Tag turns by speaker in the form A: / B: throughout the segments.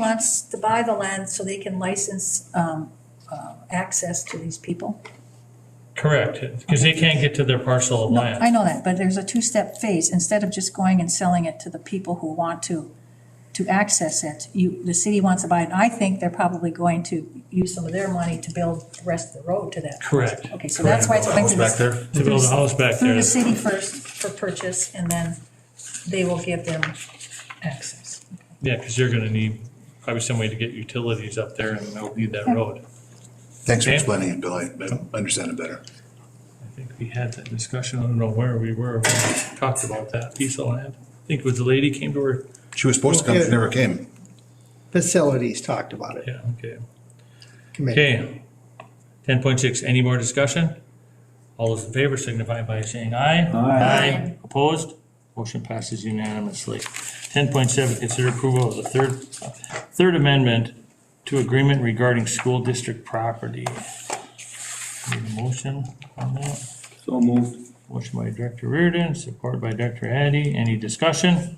A: wants to buy the land so they can license um, uh, access to these people.
B: Correct, because they can't get to their parcel of
A: No,
B: land.
A: I know that, but there's a two-step phase. Instead of just going and selling it to the people who want to, to access it, you, the city wants to buy it. And I think they're probably going to use some of their money to build the rest of the road to that.
B: Correct,
A: Okay, so that's why it's going to
C: Back
A: the,
C: there?
B: to build a house back
A: through
B: there.
A: the city first for purchase, and then they will give them access.
B: Yeah, because you're gonna need probably some way to get utilities up there and they'll need that road.
C: Thanks
B: for
C: explaining it, Bill. I understand it better.
B: I think we had that discussion, I don't know where we were, when we talked about that piece of land. I think it was the lady came to her,
C: She was supposed to come, she never came.
D: Facilities talked about it,
B: yeah, okay.
D: committee.
B: Okay, ten point six, any more discussion? All those in favor signify by saying aye. Aye. Opposed? Motion passes unanimously. Ten point seven, consider approval of the third, third amendment to agreement regarding school district property. Need a motion on that?
E: So moved.
B: Motion by Director Reardon, support by Director Addy. Any discussion?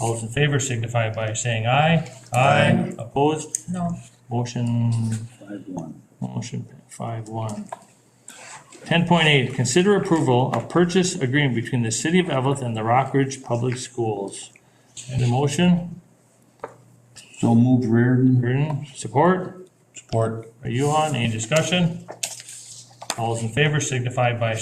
B: All those in favor signify by saying aye. Aye. Opposed?
A: No,
B: Motion
E: Five one.
B: Motion five one. Ten point eight, consider approval of purchase agreement between the city of Evelyn and the Rock Ridge Public Schools. And a motion,
E: So moved Reardon.
B: Reardon, support,
C: Support.
B: by Yuhan, any discussion? All those in favor signify by